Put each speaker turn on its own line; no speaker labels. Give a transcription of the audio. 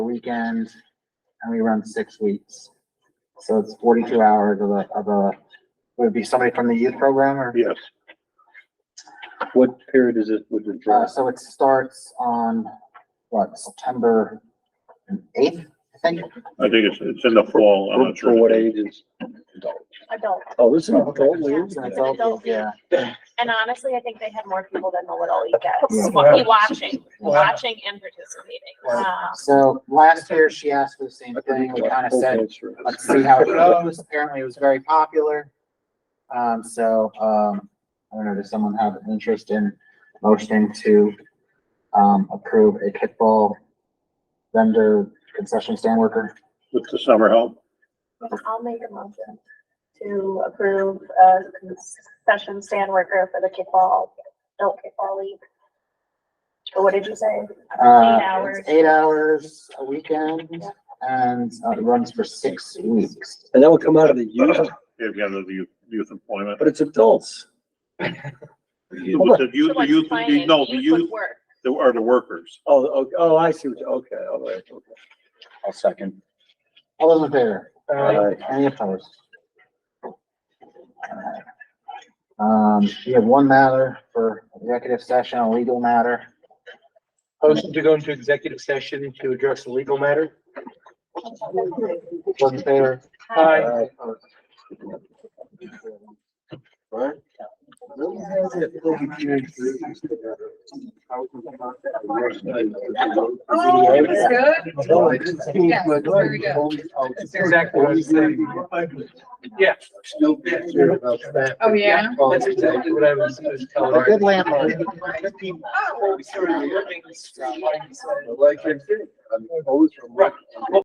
weekend, and we run six weeks. So it's forty-two hours of a, of a, would it be somebody from the youth program or?
Yes. What period is it with the
Uh,
draw?
so it starts on, what, September eighth, I think?
I think it's, it's in the fall. I'm not sure.
For what ages?
adult.
Oh, this is an adult
Yeah.
league?
It's an adult league, Yeah,
And honestly, I think they had more people than the Little League
Yeah.
guys, Wa- watching, watching and participating.
Wow.
Um,
so last year she asked for the same thing, we kinda said, let's see how it goes. Apparently it was very popular. Um, so, um, I don't know, does someone have an interest in motioning to, um, approve a kickball vendor concession stand worker?
With the summer help.
Um, I'll make a motion to approve a concession stand worker for the kickball, adult kickball league. So what did you say?
Uh,
Eight hours.
it's Eight hours a weekend
Yeah.
and uh, it runs for six weeks.
And that would come out of the youth,
They've got the youth, youth employment.
but it's adults.
But the youth,
So
the
like
youth,
explain it.
no, the
Youth would
youth
work.
the- are the workers.
Oh, oh, oh, I see what, you- okay, all right, okay.
I'll second.
All those in favor?
All right.
Any opposed? Um, we have one matter for executive session, a legal matter.
Motion to go into executive session to address a legal matter?
Those in favor?
Aye.
All right.
Oh, it was good. Yes, very
Exactly what I was saying. Yeah.
Oh, yeah.
That's exactly what I was was telling
A
her.
good landlord.
Oh.
Right.